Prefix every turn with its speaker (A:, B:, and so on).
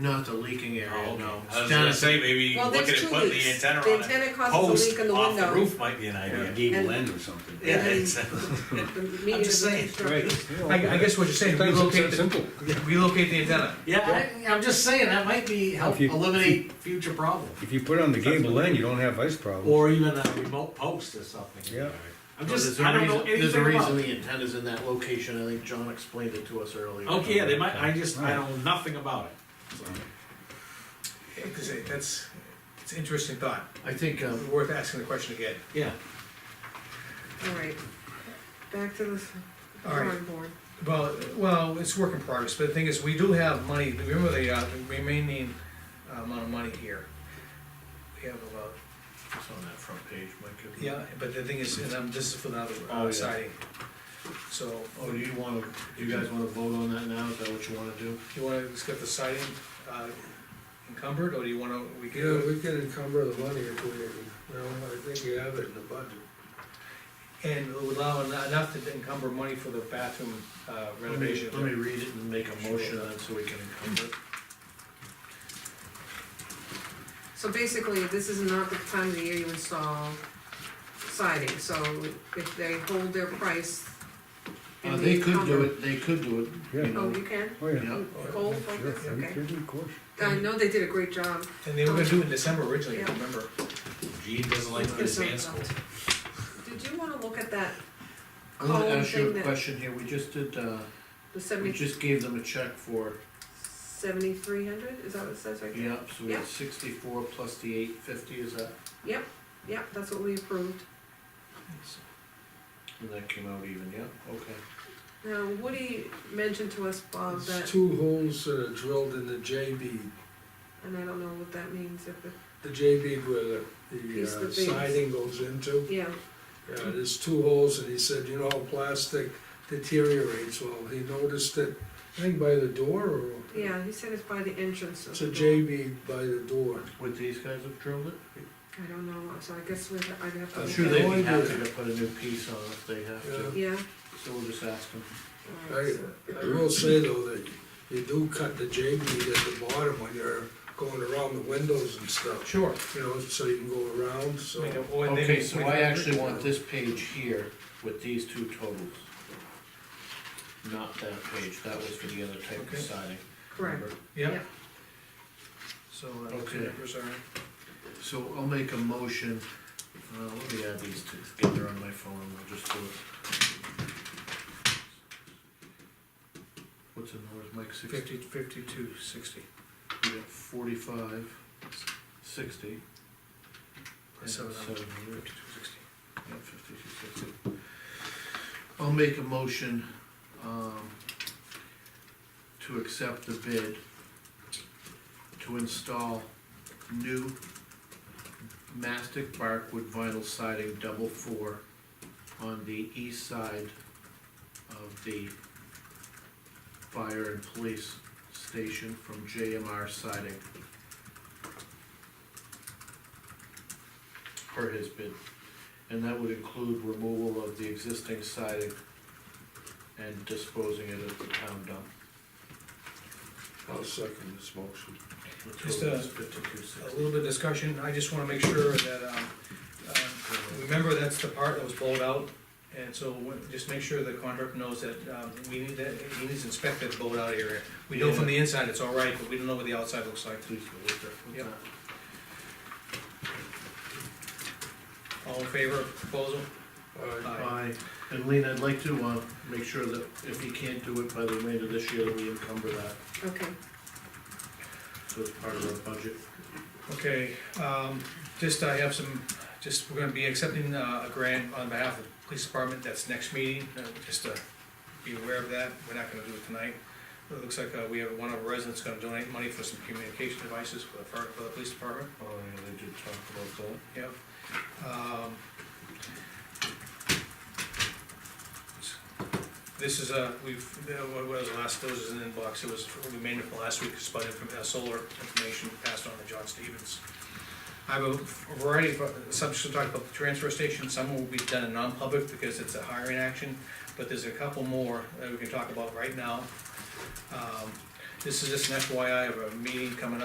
A: Not the leaking
B: Oh,
A: area, no.
C: I was gonna say, maybe
D: Well,
C: look
D: there's
C: at
D: two
C: it, put
D: leaks.
C: the antenna
D: The
C: on it.
D: antenna causes a
C: Post
D: leak in the
C: off
D: window.
C: roof might be an
E: Or a
C: idea.
E: gable
D: And-
E: end or something.
C: Yeah,
D: And then-
C: exactly.
D: I'm
B: just saying,
F: I, I guess what you're saying,
E: Sometimes it's
F: relocate,
E: that
F: the- relocate the antenna.
B: Yeah, I, I'm just saying, that might be, help
E: If you-
B: eliminate future problems,
E: If you put it on the gable end, you don't have ice problems.
B: or even a remote post or something.
E: Yeah.
B: I'm
A: Well,
B: just,
A: there's a
B: I don't know
A: reason-
B: anything
A: There's a
B: about.
A: reason the antenna's in that location, I think John explained it to us earlier.
B: Okay, yeah, they might, I just, I know nothing about it.
F: Because that's, it's an interesting thought,
A: I think, um,
F: worth asking the question again.
B: Yeah,
D: All right, back to the
F: All right.
D: drawing board.
F: Well, well, it's work in progress, but the thing is, we do have money, remember the, uh, the remaining uh, amount of money here. We have about,
A: it's on that front page, Mike. isn't it?
F: yeah, but the thing is, and I'm, this is for the other
A: Oh, yeah.
F: uh, siding. So,
A: Oh, do you wanna, do you guys wanna vote on that now, is that what you wanna do?
F: you wanna just get the siding, uh, encumbered, or do you wanna, we can
G: Yeah,
F: do
G: we can encumber the money if we, well, I think you have it in the budget.
F: it? And allow en- enough to encumber money for the bathroom uh,
A: Let me,
F: renovation.
A: let me read it and make a motion on it so we can encumber it.
D: So basically, this is not the time of the year you install siding, so if they hold their price.
A: Uh,
D: and
A: they
D: we
A: could do
D: cover-
A: it, they could do it, you
E: Yeah.
D: Oh,
A: know,
D: you can?
E: Oh, yeah.
A: yeah.
D: Cold like this,
E: Sure, are you
D: okay.
E: kidding? Of course.
D: I know they did a great job.
F: And they were gonna do it in December originally, if you
D: Yeah.
F: remember.
C: Gene doesn't like to get his hands full.
D: Did you wanna look at that
A: I'm gonna
D: column
A: ask you
D: Oh, thing
A: a
D: that,
A: question here, we just did, uh,
D: the
A: we
D: seventy,
A: just gave them a check for,
D: seventy-three hundred, is that what it says right there?
A: yep, so we
D: Yeah.
A: had sixty-four plus the eight fifty, is that?
D: Yep, that's what we approved.
A: And that came out even, yeah, okay.
D: Now, Woody mentioned to us, Bob,
G: It's
D: that,
G: two holes that are drilled in the J bead.
D: and I don't know what that means, if it,
G: The J bead where the,
D: Piece
G: the
D: of
G: uh,
D: beads.
G: siding goes into.
D: yeah,
G: Yeah, there's two holes and he said, you know, plastic deteriorates. Well, he noticed it, I think by the door or.
D: yeah, he said it's by the entrance of
G: It's
D: the
G: a
D: door.
G: J bead by the door.
A: Would these guys have drilled it?
D: I don't know, so I guess we, I'd have to.
A: I'm
G: I'm
D: look
A: sure
D: at
A: they'd
D: it.
A: be
G: Why do-
A: happy to put a new piece on if they have to,
G: Yeah.
D: Yeah.
A: so we'll just ask them.
D: all right,
G: I,
D: so-
G: I will say though that you do cut the J bead at the bottom when you're going around the windows and stuff.
F: Sure.
G: you know, so you can go around, so.
F: Make it- oh, and they
A: Okay,
F: make-
A: so
F: make
A: I
F: it-
A: actually want this page here with these two totals. Not that page, that was for the other type
F: Okay.
A: of siding.
D: Correct,
A: remember?
F: Yeah.
D: Yeah.
F: So, uh,
A: Okay.
F: the numbers are,
A: So I'll make a motion, uh, let me add these two together on my phone, I'll just do it. What's in there, Mike, sixty,
F: fifty, fifty-two, sixty,
A: we got forty-five, sixty. and
F: seven hundred,
A: hundred.
F: fifty-two, sixty.
A: Yeah, 5260. I'll make a motion, um, to accept the bid to install new mastic barkwood vinyl siding double four on the east side of the fire and police station from JMR siding. Per his bid. And that would include removal of the existing siding and disposing it at the town dump.
G: I'll second this motion.
A: The
F: Just,
A: total
F: uh,
A: is 5260.
F: A little bit of discussion, I just wanna make sure that, um, uh, remember that's the part that was blowed out, and so we- just make sure the contractor knows that, um, we need that, he needs to inspect that blowed out area. We know from the inside it's all right, but we don't know what the outside looks like.
A: Please go with that. What's
F: Yep.
A: that?
F: All in favor of proposal?
G: Aye.
A: Aye. And Lean, I'd like to, uh, make sure that if he can't do it by the remainder of this year, that we encumber that,
D: okay,
A: so it's part of our budget.
F: Okay, um, just I have some, just, we're gonna be accepting uh, a grant on behalf of the police department, that's next meeting, uh, just to be aware of that, we're not gonna do it tonight. It looks like uh, we have one of our residents gonna donate money for some communication devices for the, fire- for the police department,
A: Oh, yeah, they did talk about that.
F: yep. Um, This is a, we've, uh, what was the last, those is an inbox, it was, we made it from last week, it's by from uh, solar information passed on to John Stevens. I have a variety of uh, subjects to talk about the transfer station, some will be done in non-public because it's a hiring action, but there's a couple more that we can talk about right now. Um, This is just an FYI of a meeting coming up.